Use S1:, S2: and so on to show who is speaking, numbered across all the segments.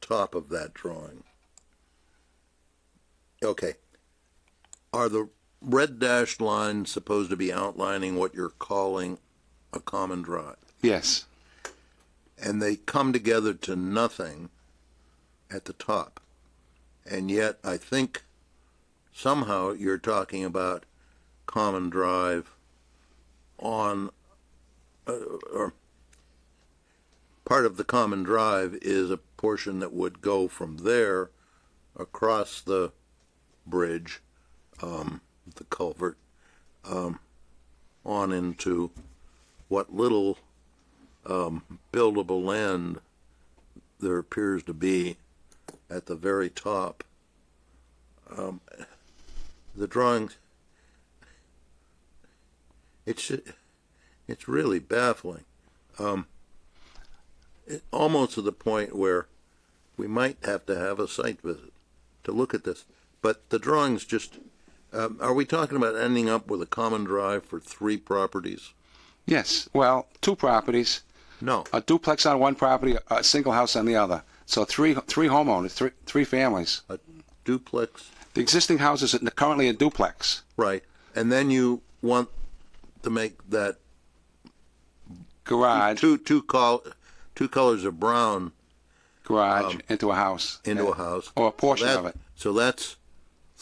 S1: top of that drawing. Okay. Are the red dashed lines supposed to be outlining what you're calling a common drive?
S2: Yes.
S1: And they come together to nothing at the top. And yet, I think somehow you're talking about common drive on, uh, or part of the common drive is a portion that would go from there across the bridge, um, the culvert, um, on into what little um, buildable land there appears to be at the very top. Um, the drawings, it's it's really baffling Um, almost to the point where we might have to have a site visit to look at this. But the drawings just, um, are we talking about ending up with a common drive for three properties?
S2: Yes. Well, two properties,
S1: No,
S2: a duplex on one property, a single house on the other. So three three homeowners, three three families.
S1: a duplex,
S2: The existing house is currently a duplex.
S1: right. And then you want to make that
S2: Garage,
S1: two, two col, two colors of brown
S2: garage into a house.
S1: um, into a
S2: Yeah.
S1: house.
S2: Or a portion
S1: That-
S2: of it.
S1: So that's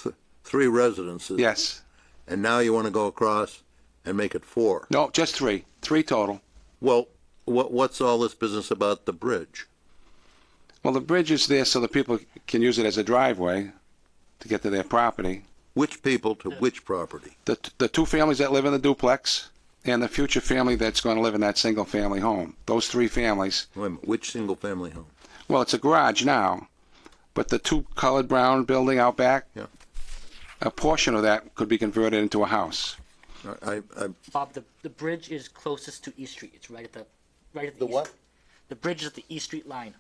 S1: th- three residences.
S2: Yes.
S1: And now you want to go across and make it four.
S2: No, just three. Three total.
S1: Well, what, what's all this business about the bridge?
S2: Well, the bridge is there so the people can use it as a driveway to get to their property.
S1: Which people to which property?
S2: The, the two families that live in the duplex and the future family that's going to live in that single family home. Those three families.
S1: Wait a minute, which single family home?
S2: Well, it's a garage now, but the two colored brown building out back,
S1: Yeah.
S2: a portion of that could be converted into a house.
S1: I, I,
S3: Bob, the, the bridge is closest to East Street. It's right at the, right at the.
S1: The
S3: east-
S1: what?
S3: The bridge is at the East Street line.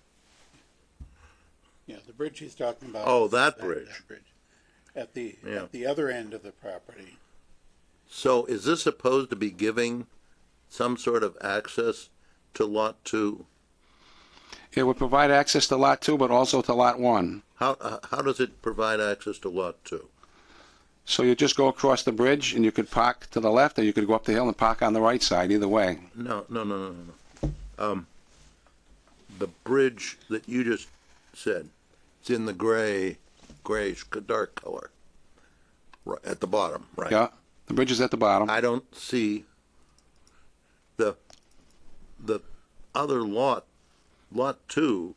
S4: Yeah, the bridge he's talking about.
S1: Oh,
S4: is
S1: that bridge.
S4: At the,
S1: Yeah.
S4: at the other end of the property.
S1: so is this supposed to be giving some sort of access to lot two?
S2: It would provide access to Lot 2, but also to Lot 1.
S1: How, uh, how does it provide access to lot two?
S2: So you just go across the bridge and you could park to the left or you could go up the hill and park on the right side, either way.
S1: No, no, no, no, no, no. Um, the bridge that you just said, it's in the gray, grayish, dark color, right, at the bottom, right?
S2: Yeah, the bridge is at the bottom.
S1: I don't see the, the other lot, lot two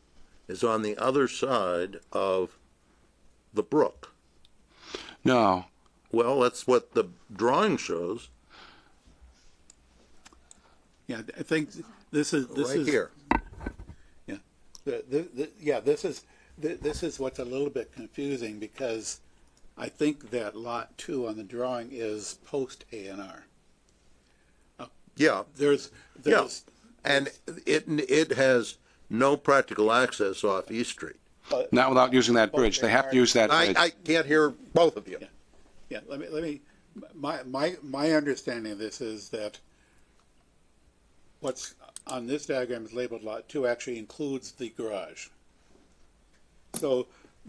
S1: is on the other side of the brook.
S2: No,
S1: Well, that's what the drawing shows,
S4: Yeah, I think this is, this
S1: right
S4: is.
S1: here.
S4: Yeah, the, the, the, yeah, this is, th- this is what's a little bit confusing because I think that lot two on the drawing is post A and R.
S1: Yeah,
S4: There's,
S1: yeah.
S4: there's,
S1: And it, it has no practical access off East Street.
S2: not without using that bridge. They have to use that
S1: I,
S2: bridge.
S1: I can't hear both of you.
S4: yeah, let me, let me, my, my, my understanding of this is that what's on this diagram is labeled lot two actually includes the garage. So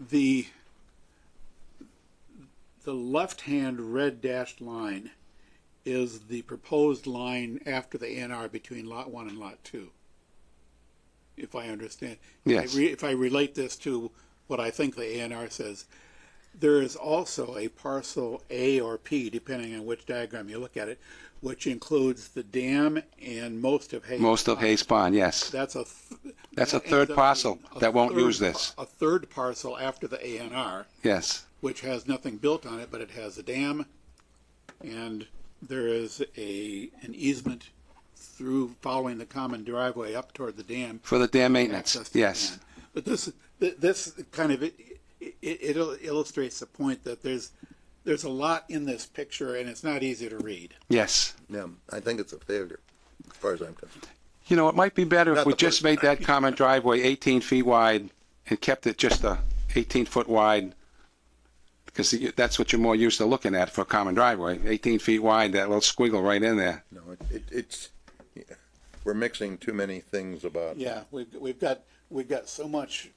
S4: the, the left-hand red dashed line is the proposed line after the ANR between lot one and lot two. If I understand.
S2: Yes.
S4: If I re- If I relate this to what I think the ANR says, there is also a parcel A or P, depending on which diagram you look at it, which includes the dam and most of Hayes.
S2: Most of Hayes Pond, yes.
S4: That's a. th-
S2: That's a
S4: that
S2: third
S4: ends up
S2: parcel
S4: being a
S2: that won't
S4: third
S2: use this.
S4: par- A third parcel after the ANR,
S2: Yes.
S4: which has nothing built on it, but it has a dam, and there is a, an easement through, following the common driveway up toward the dam.
S2: For the dam maintenance,
S4: access to
S2: yes.
S4: land. But this, th- this kind of, it, it, it il- illustrates the point that there's, there's a lot in this picture, and it's not easy to read.
S2: Yes.
S1: Yeah, I think it's a failure, as far as I'm concerned.
S2: You know, it might be better
S1: Not
S2: if we
S1: the
S2: just
S1: first
S2: made that common driveway 18 feet wide and kept it just a 18-foot wide, because you- that's what you're more used to looking at for a common driveway, 18 feet wide, that little squiggle right in there.
S1: No, it- it, it's, yeah, we're mixing too many things about.
S4: Yeah, we've, we've got, we've got so much